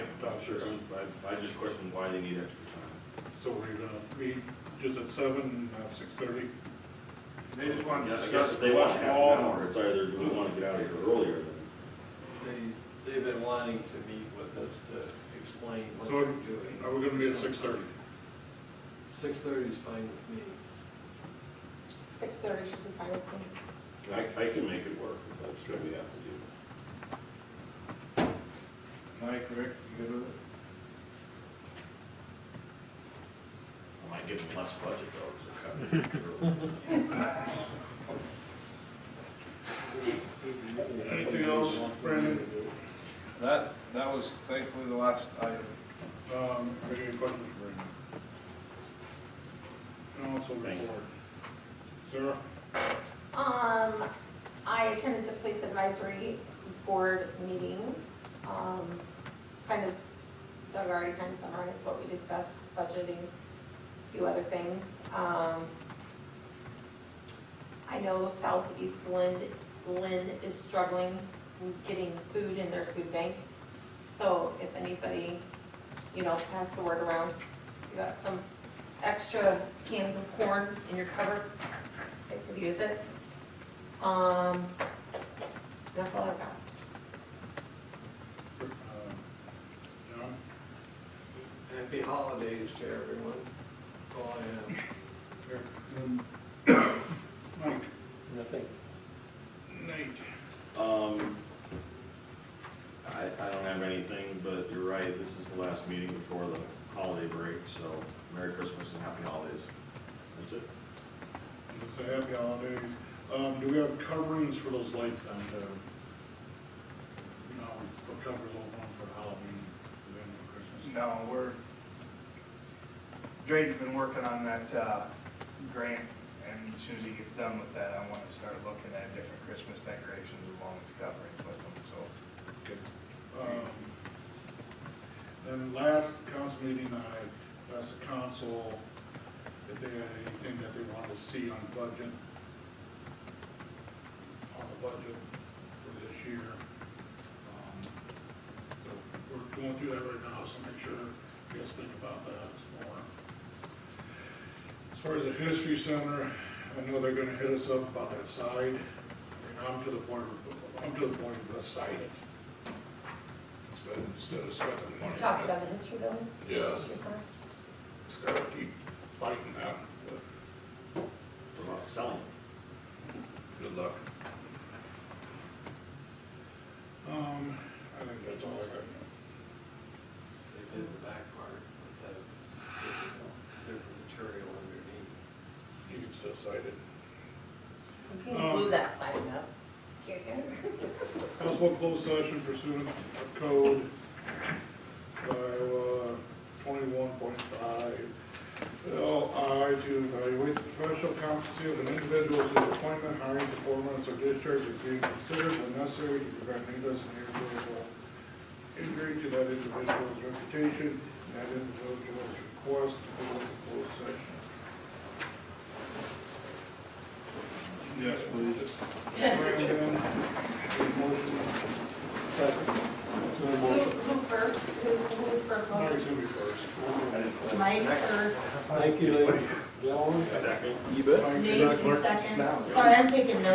sure, I, I just questioned why they need extra time. So we're gonna meet just at seven, uh, six thirty? They just want to Yeah, I discuss. guess if they want what half an all- hour, it's either we wanna get out of here earlier than, They, they've been wanting to meet with us to explain what So they're doing. Are we gonna meet at six thirty? Six thirty is fine with me. Six thirty should be fine with me. I, I can make it work if that's what we have to do. Mike, Rick, you good with it? I might give them less budget though, because they're cutting. it. Anything else, Brandon? That, that was thankfully the last item. Um, are there any questions for Brandon? Council Thanks. report. Sarah? Um, I attended the police advisory board meeting. Um, kind of, Doug already kind of summarized what we discussed, budgeting, a few other things. Um, I know Southeast Lynn, Lynn is struggling with getting food in their food bank. So if anybody, you know, pass the word around, you got some extra cans of corn in your cupboard, they could use it. Um, that's all I've got. Um, John? Happy holidays to everyone. That's all I have. Eric? Mike? Nothing. Nate? Um, I, I don't have anything, but you're right, this is the last meeting before the holiday break, so Merry Christmas and Happy Holidays. That's it. It's a happy holidays. Um, do we have coverings for those lights on the, you know, for covers over one for Halloween, and then for Christmas? No, we're, Drade's been working on that, uh, grant, and as soon as he gets done with that, I wanna start looking at different Christmas decorations along with coverings with them, so. Um, Then last council meeting, I asked the council if they had anything that they wanted to see on budget, on the budget for this year. Um, So we're going through that right now, so make sure you guys think about that some more. As far as the history center, I know they're gonna hit us up about that side, and I'm to the point, I'm to the point of let's side it. Instead of- Instead of spending money. You talked about the history building? Yes, History Center? just gotta keep fighting that. What about selling? Good luck. Um, I think that's all I got. They did the back part, but that's different material underneath. You can still cite it. You Um, can glue that sign up. Here, here. Possible closed session pursuant of code Iowa twenty-one point five. L I to evaluate the professional competency of an individual whose appointment, hiring, performance, or discharge is being considered when necessary to prevent needless and irreparable injury to that individual's reputation, and that individual's request to go into closed session. Yes, please. Brandon, motion. Who, who first, who, who's first one? Mike's gonna be first. Mike first. Thank you, ladies.